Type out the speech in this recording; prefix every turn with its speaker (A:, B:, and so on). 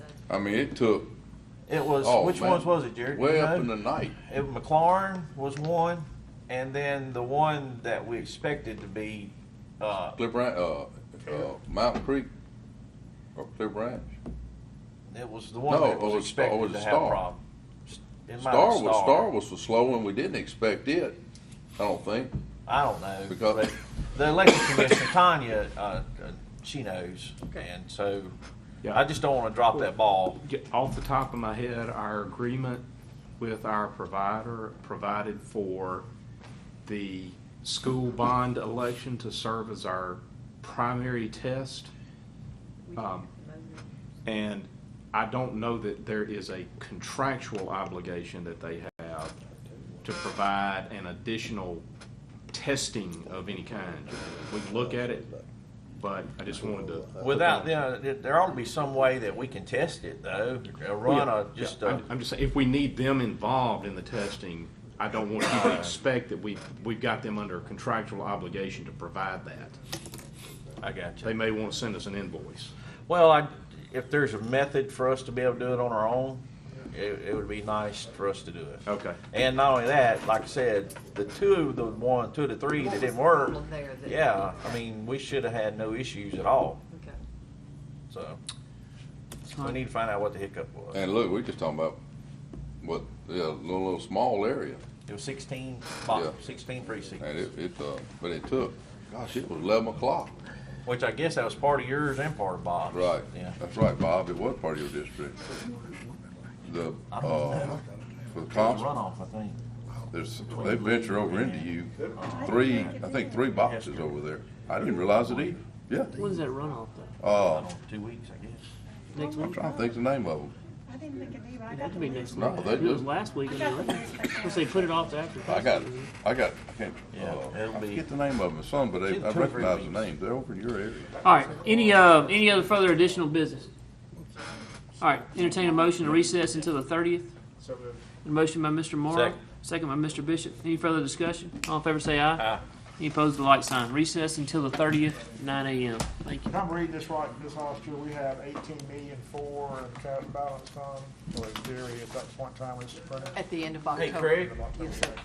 A: I mean, it took
B: It was,
A: Oh,
B: which
A: man.
B: ones was it, Jared? Do
A: way
B: you
A: up
B: know?
A: in the night.
B: It- McLaurin was one, and then the one that we expected to be, uh,
A: Cliff Ranch, uh, uh, Mountain Creek or Cliff Ranch.
B: it was the one
A: No,
B: that
A: it
B: was
A: was- it was
B: expected to have
A: Star.
B: problem. It might have
A: Star
B: been
A: was Star was the slow one. We didn't expect it. I don't think.
B: I don't know.
A: Because-
B: but the election commissioner, Tanya, uh, uh, she knows, and so
C: Yeah.
B: I just don't want to drop that ball.
C: Get off the top of my head, our agreement with our provider provided for the school bond election to serve as our primary test. Um, And I don't know that there is a contractual obligation that they have to provide an additional testing of any kind. We can look at it, but I just wanted to. put that
B: Without,
C: on-
B: you know, there- there ought to be some way that we can test it though, or run
C: Yeah,
B: a, just uh,
C: yeah.
B: a,
C: I'm- I'm just saying, if we need them involved in the testing, I don't want you to expect that we, we've got them under contractual obligation to provide that.
B: I got you.
C: They may want to send us an invoice.
B: Well, I, if there's a method for us to be able to do it on our own, it, it would be nice for us to do it.
C: Okay.
B: And not only that, like I said, the two of the one, two of the three that didn't work,
D: Well, there that-
B: yeah, I mean, we should have had no issues at all,
D: Okay.
B: so. We need to find out what the hiccup was.
A: And look, we're just talking about what yeah, a little, little small area,
B: It was sixteen, box-
A: Yeah.
B: sixteen
A: and
B: precincts,
A: it, it uh, but it took. Gosh, it was eleven o'clock.
B: which I guess that was part of yours and part of Bob's.
A: Right.
B: Yeah.
A: That's right, Bob. It was part of your district. The uh, for the constable,
B: Runoff, I think.
A: there's they venture over into you. Three, I think three boxes over there. I didn't realize it either. Yeah.
E: When's that runoff
B: I
E: though?
A: Uh,
B: don't know, two weeks, I guess.
E: Next
A: I'm
E: week?
A: trying to think the name of them.
F: I didn't think of either. I
E: It
F: got
E: had to be next week.
A: No, they
E: It was
A: do.
E: last week.
F: got the
E: anyway.
F: newspaper.
E: Because they put it off to after.
A: I got,
E: Christmas.
A: I got, I can't,
B: Yeah, it'll
A: uh, I
B: be-
A: forget the name of them, son, but they-
B: It's
A: I
B: two or three
A: recognize the
B: weeks.
A: name. They're over in your area.
E: All right, any, uh, any other further additional business? All right, entertain a motion to recess until the thirtieth. A motion by Mr. Morrow,
B: Second.
E: second by Mr. Bishop. Any further discussion? All in favor say aye.
B: Aye.
E: Any opposed, the light sign. Recess until the thirtieth, nine AM. Thank you.
G: If I'm reading this right, this last year, we have eighteen million four in cash balance fund, so in theory, at that point in time, it's running.
D: At the end of
B: Hey,
D: October.
B: Craig,
D: Yes, sir.